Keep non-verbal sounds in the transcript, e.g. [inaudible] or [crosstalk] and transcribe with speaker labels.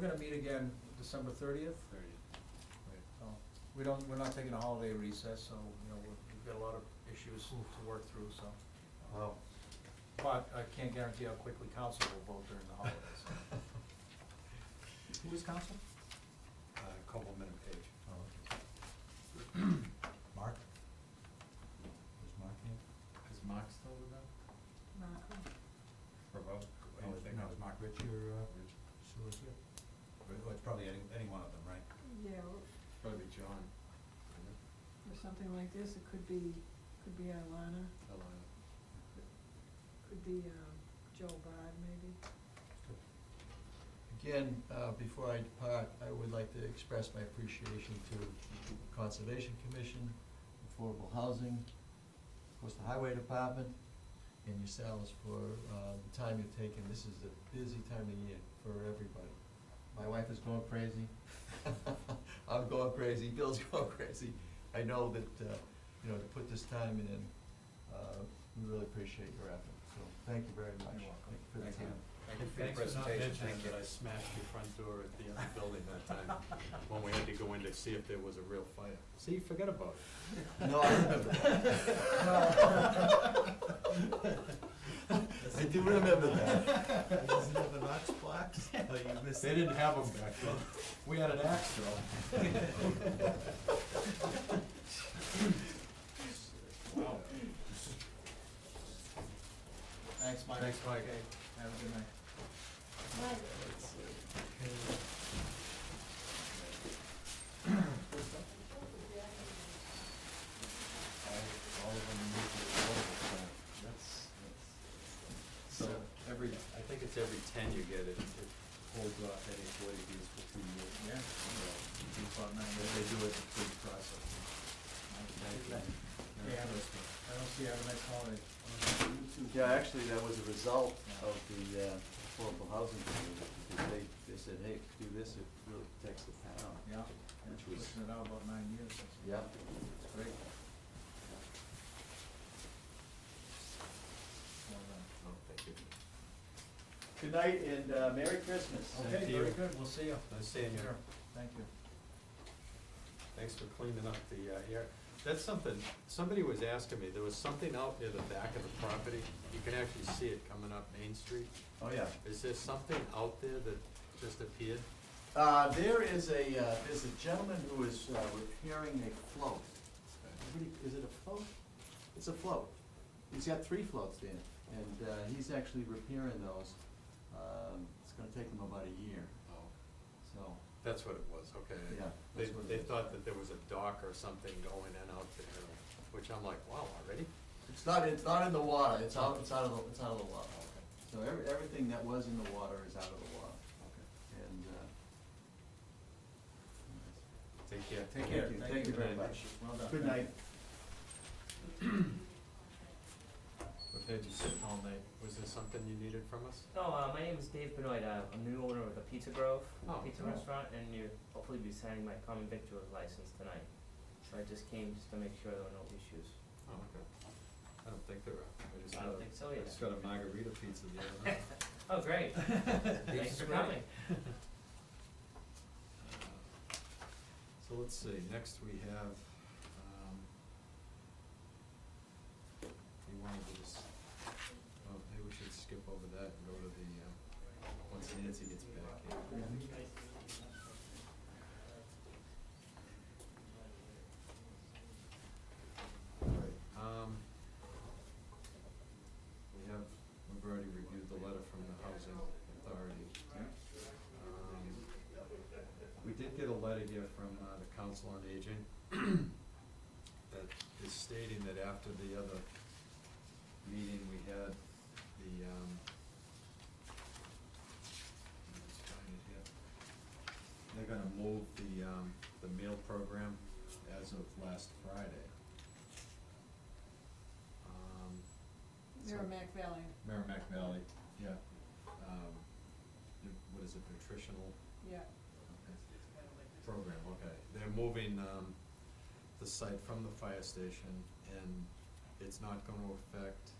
Speaker 1: gonna meet again December thirtieth. We don't, we're not taking a holiday recess, so, you know, we've we've got a lot of issues to work through, so.
Speaker 2: Uh-huh.
Speaker 3: Oh,
Speaker 4: Wow.
Speaker 1: But I can't guarantee how quickly council will vote during the holidays.
Speaker 2: [laughs]
Speaker 1: [coughs] so.
Speaker 2: Who is council?
Speaker 4: Uh, compliment of page.
Speaker 2: Oh, okay. Mark? Is Mark here?
Speaker 3: Is Mark still with them?
Speaker 4: For vote?
Speaker 2: Oh, is-
Speaker 4: Anything?
Speaker 2: No, is Mark Ritchie or, uh,
Speaker 4: Rich.
Speaker 2: Sue is here? Or- or oh, it's probably any, any one of them, right?
Speaker 5: Yeah, or,
Speaker 3: Probably John.
Speaker 5: or something like this, it could be, could be Alana,
Speaker 3: Alana.
Speaker 5: could be, um, Joe Bard maybe.
Speaker 6: Again, uh, before I depart, I would like to express my appreciation to the Conservation Commission, Affordable Housing, of course, the Highway Department, and yourselves for uh, the time you've taken. This is a busy time of year for everybody. My wife is going crazy. [laughs] I'm going crazy, Bill's [laughs] going crazy. I know that, uh, you know, to put this time in, uh, we really appreciate your effort, so thank you very much.
Speaker 1: You're welcome.
Speaker 6: Thank
Speaker 1: Thank you.
Speaker 6: you for the time.
Speaker 4: Thank you for your
Speaker 3: Thanks for not
Speaker 4: presentation.
Speaker 3: mentioning
Speaker 4: Thank you.
Speaker 3: that I smashed your front door at the other building that time, [laughs] when we had to go in to see if there was a real fire. See, forget about it.
Speaker 6: No, I remember that.
Speaker 3: [laughs]
Speaker 6: I do remember that.
Speaker 2: Isn't it the Knox blocks? Oh, you missed
Speaker 3: They
Speaker 2: it.
Speaker 3: didn't have them back then. We had an axe though. Wow.
Speaker 1: Thanks, Mike.
Speaker 3: Thanks, Mike.
Speaker 1: Okay, Have a good night.
Speaker 4: All all of them need to be voted,
Speaker 3: That's,
Speaker 4: so. So every,
Speaker 3: I think it's every ten you get it, it holds off any forty Bs for two years.
Speaker 1: Yeah.
Speaker 3: So,
Speaker 1: It's about nine
Speaker 3: They
Speaker 1: days.
Speaker 3: they do it through the process.
Speaker 1: Yeah, I don't- I don't see how the next holiday.
Speaker 6: Yeah, actually, that was a result of the uh, affordable housing committee, because they, they said, hey, do this, it really protects the town.
Speaker 1: Yeah, and
Speaker 6: Which was-
Speaker 1: pushing it out about nine years. that's-
Speaker 6: Yeah.
Speaker 1: That's great. Well done.
Speaker 3: Oh, thank you.
Speaker 6: Good night and uh, Merry Christmas.
Speaker 3: Oh, Thank
Speaker 1: Okay, very
Speaker 3: you.
Speaker 1: good, we'll see you.
Speaker 3: Nice seeing you.
Speaker 1: Sure, Thank you.
Speaker 3: Thanks for cleaning up the uh, air. That's something, somebody was asking me, there was something out near the back of the property. You can actually see it coming up Main Street.
Speaker 6: Oh, yeah.
Speaker 3: Is there something out there that just appeared?
Speaker 6: Uh, there is a, uh, there's a gentleman who is uh, repairing a float. Everybody- Is it a float? It's a float. He's got three floats in, and uh, he's actually repairing those. Um, It's gonna take him about a year,
Speaker 3: Oh,
Speaker 6: so,
Speaker 3: That's what it was, okay.
Speaker 6: Yeah,
Speaker 3: They,
Speaker 6: that's what it
Speaker 3: they
Speaker 6: is.
Speaker 3: thought that there was a dock or something going in out there, which I'm like, wow, already?
Speaker 6: it's not, it's not in the water, it's out, it's out of, the it's out of the water. So every, everything that was in the water is out of the water,
Speaker 3: Okay.
Speaker 6: and, uh.
Speaker 3: Take care.
Speaker 1: Take care.
Speaker 6: you.
Speaker 1: Thank
Speaker 6: Thank
Speaker 1: you
Speaker 6: you very
Speaker 1: very
Speaker 6: much.
Speaker 1: Well done.
Speaker 6: Good night.
Speaker 3: We've had you sit all night. Was there something you needed from us?
Speaker 7: No, uh, my name is Dave Benoit. Uh, I'm the new owner of the Pizza Grove
Speaker 3: Oh,
Speaker 7: Pizza
Speaker 3: cool.
Speaker 7: Restaurant, and you'll hopefully be signing my common victuals license tonight. So I just came just to make sure there were no issues.
Speaker 3: Oh, okay. I don't think there are. I just
Speaker 7: I
Speaker 3: got a-
Speaker 7: don't think so
Speaker 3: I
Speaker 7: yet.
Speaker 3: just got a margarita pizza the other
Speaker 7: [laughs]
Speaker 3: night. Uh,
Speaker 7: Oh, great.
Speaker 3: [laughs]
Speaker 7: Thanks for coming.
Speaker 3: So let's see, next we have, um, you wanted to just, oh, maybe we should skip over that and go to the, uh, once Nancy gets back here. Alright, um, we have, we've already reviewed the letter from the housing authority. Um, we did get a letter here from uh, the Council on Aging [clears throat] that is stating that after the other meeting we had, the, um, let's find it here. They're gonna move the, um, the meal program as of last Friday. Um, so-
Speaker 5: Merrimack Valley,
Speaker 3: Merrimack Valley, yeah. Um, what is it, nutritional?
Speaker 5: yeah.
Speaker 3: Program, okay. They're moving, um, the site from the fire station and it's not gonna affect